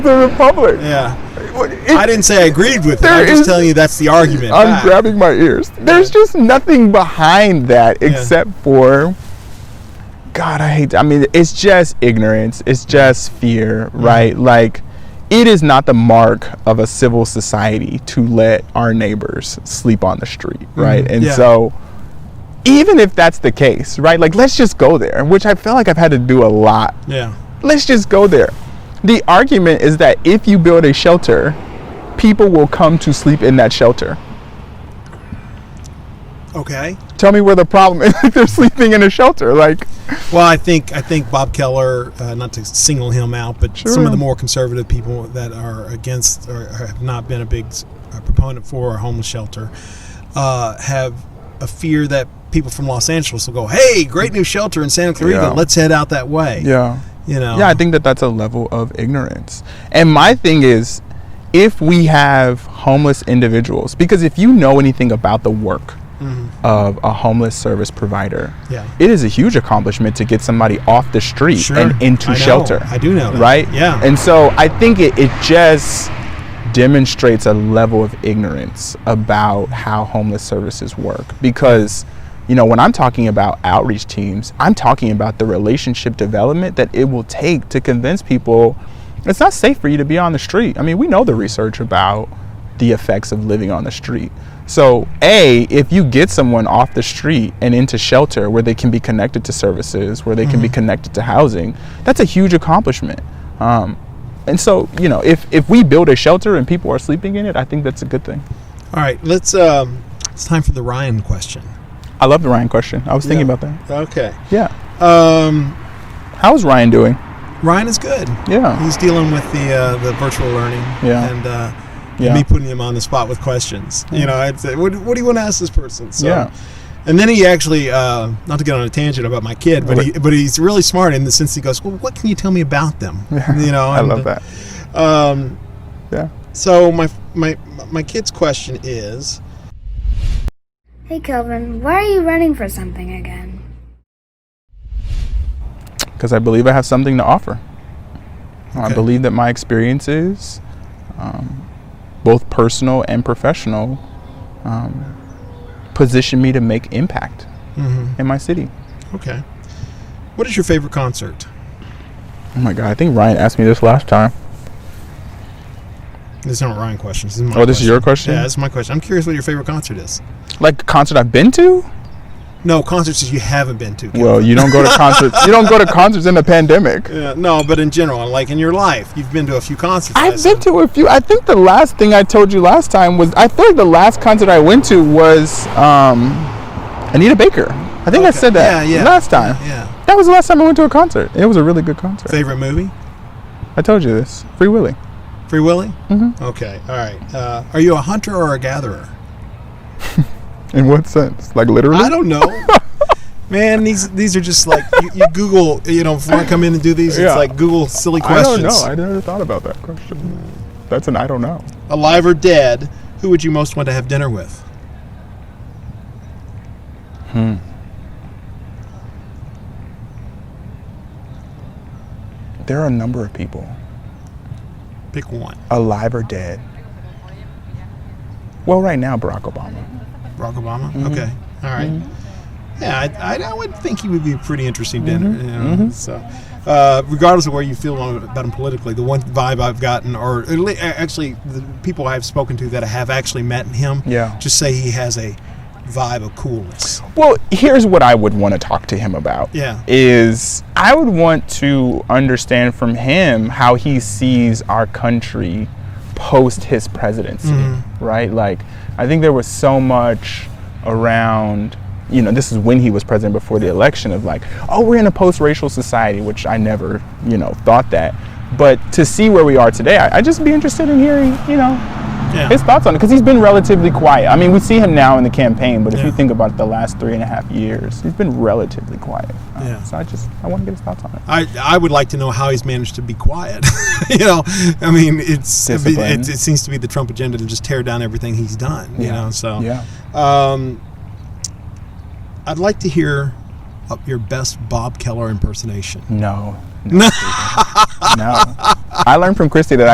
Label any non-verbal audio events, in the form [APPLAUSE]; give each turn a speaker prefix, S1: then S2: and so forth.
S1: the Republic.
S2: Yeah.
S1: What- it-
S2: I didn't say I agreed with it.
S1: There
S2: I'm just
S1: is-
S2: telling you that's the argument.
S1: I'm
S2: back.
S1: grabbing my ears. There's just nothing behind that except for God, I hate I mean it's just ignorance. It's just fear,
S2: Mm.
S1: right? Like it is not the mark of a civil society to let our neighbors sleep on the street, right? And
S2: Mm-hmm. yeah.
S1: so even if that's the case, right? Like let's just go there, which I feel like I've had to do a lot
S2: Yeah.
S1: let's just go there. The argument is that if you build a shelter, people will come to sleep in that shelter.
S2: Okay.
S1: Tell me where the problem is [LAUGHS] if they're sleeping in a shelter. Like,
S2: Well, I think I think Bob Keller, uh, not to single him out, but some
S1: Sure.
S2: of the more conservative people that are against or have not been a big s- uh, proponent for a homeless shelter uh, have a fear that people from Los Angeles will go, "Hey, great new shelter in Santa Clarita,
S1: Yeah.
S2: let's head out that way."
S1: yeah.
S2: you know,
S1: Yeah, I think that that's a level of ignorance. And my thing is, if we have homeless individuals, because if you know anything about the work of a homeless service provider,
S2: Mm-hmm. Yeah.
S1: it is a huge accomplishment to get somebody off the street
S2: Sure.
S1: and into
S2: I know.
S1: shelter.
S2: I do know that.
S1: Right?
S2: Yeah.
S1: And so I think it, it just demonstrates a level of ignorance about how homeless services work because you know when i'm talking about outreach teams i'm talking about the relationship development that it will take to convince people it's not safe for you to be on the street i mean we know the research about the effects of living on the street so a if you get someone off the street and into shelter where they can be connected to services where they can be connected to housing that's a huge accomplishment um, and so, you know, if if we build a shelter and people are sleeping in it, I think that's a good thing.
S2: All right, let's. Um, it's time for the Ryan question.
S1: I love the Ryan question. I was thinking
S2: Yeah.
S1: about that.
S2: Okay.
S1: Yeah.
S2: Um,
S1: How's Ryan doing?
S2: Ryan is good.
S1: Yeah.
S2: He's dealing with the uh, the virtual learning.
S1: Yeah.
S2: And uh,
S1: Yeah.
S2: me putting him on the spot with questions. You know, I'd say, what, what do you want to ask this person? So,
S1: Yeah.
S2: And then he actually, uh, not to get on a tangent about my kid, but he, but he's really smart in the sense he goes, well, what can you tell me
S1: [LAUGHS]
S2: about them? You know,
S1: I
S2: and,
S1: love that.
S2: Um,
S1: Yeah.
S2: so my my my kid's question is,
S3: Hey, Kelvin, why are you running for something again?
S1: Because I believe I have something to offer. I
S2: Okay.
S1: believe that my experiences, um, both personal and professional, um, position me to make impact in my city.
S2: okay, what is your favorite concert?
S1: Oh my God! I think Ryan asked me this last time.
S2: These aren't Ryan questions. This is my
S1: Oh, this is your question?
S2: Yeah, this is my question. I'm curious what your favorite concert is.
S1: Like concert I've been to.
S2: No, concerts that you haven't been to. Kelvin.
S1: Well, you don't go to concerts. You don't go to concerts in the pandemic.
S2: Yeah, no, but in general, like in your life, you've been to a few concerts. I
S1: I've
S2: assume.
S1: been to a few. I think the last thing I told you last time was I feel like the last concert I went to was um, Anita Baker. I think I
S2: Okay.
S1: said that
S2: Yeah, yeah.
S1: last time.
S2: Yeah.
S1: That was the last time I went to a concert. It was a really good concert.
S2: Favorite movie?
S1: I told you this. Free Willy.
S2: Free Willy? Mm-hmm. Okay. All right. Uh, are you a hunter or a gatherer?
S1: In what sense? Like literally?
S2: I
S1: [LAUGHS]
S2: don't know. Man, these these are just like you, you Google. You know, before I come in and do these,
S1: Yeah.
S2: it's like Google silly
S1: I
S2: questions.
S1: don't know. I never thought about that question. That's an I don't know.
S2: Alive or dead? Who would you most want to have dinner with?
S1: There are a number of people,
S2: Pick one.
S1: alive or dead. Well, right now, Barack Obama.
S2: Barack Obama.
S1: Mm-hmm.
S2: Okay. All right. Yeah, I, I, I would think he would be a pretty interesting
S1: Mm-hmm.
S2: dinner. You know, So, uh, regardless of where you feel about him politically, the one vibe I've gotten, or at le- actually the people I've spoken to that have actually met him,
S1: Yeah.
S2: just say he has a vibe of coolness.
S1: Well, here's what I would want to talk to him about.
S2: Yeah.
S1: Is I would want to understand from him how he sees our country post his presidency, right? Like, I think there was so much around, you know, this is when he was president before the election of like, oh, we're in a post racial society, which I never, you know, thought that. But to see where we are today, I, I'd just be interested in hearing, you know,
S2: Yeah.
S1: his thoughts on it because he's been relatively quiet. I mean, we see him now in the campaign, but if
S2: Yeah.
S1: you think about the last three and a half years, he's been relatively quiet. Uh,
S2: Yeah.
S1: So I just I want to get his thoughts on it.
S2: I, I would like to know how he's managed to be quiet. [LAUGHS] you know, I mean, it's I mean,
S1: Discipline.
S2: it, it seems to be the Trump agenda to just tear down everything he's done. You know, so
S1: yeah,
S2: Um, I'd like to hear uh, your best [LAUGHS] Bob Keller impersonation.
S1: no, no, no. I learned from Christy that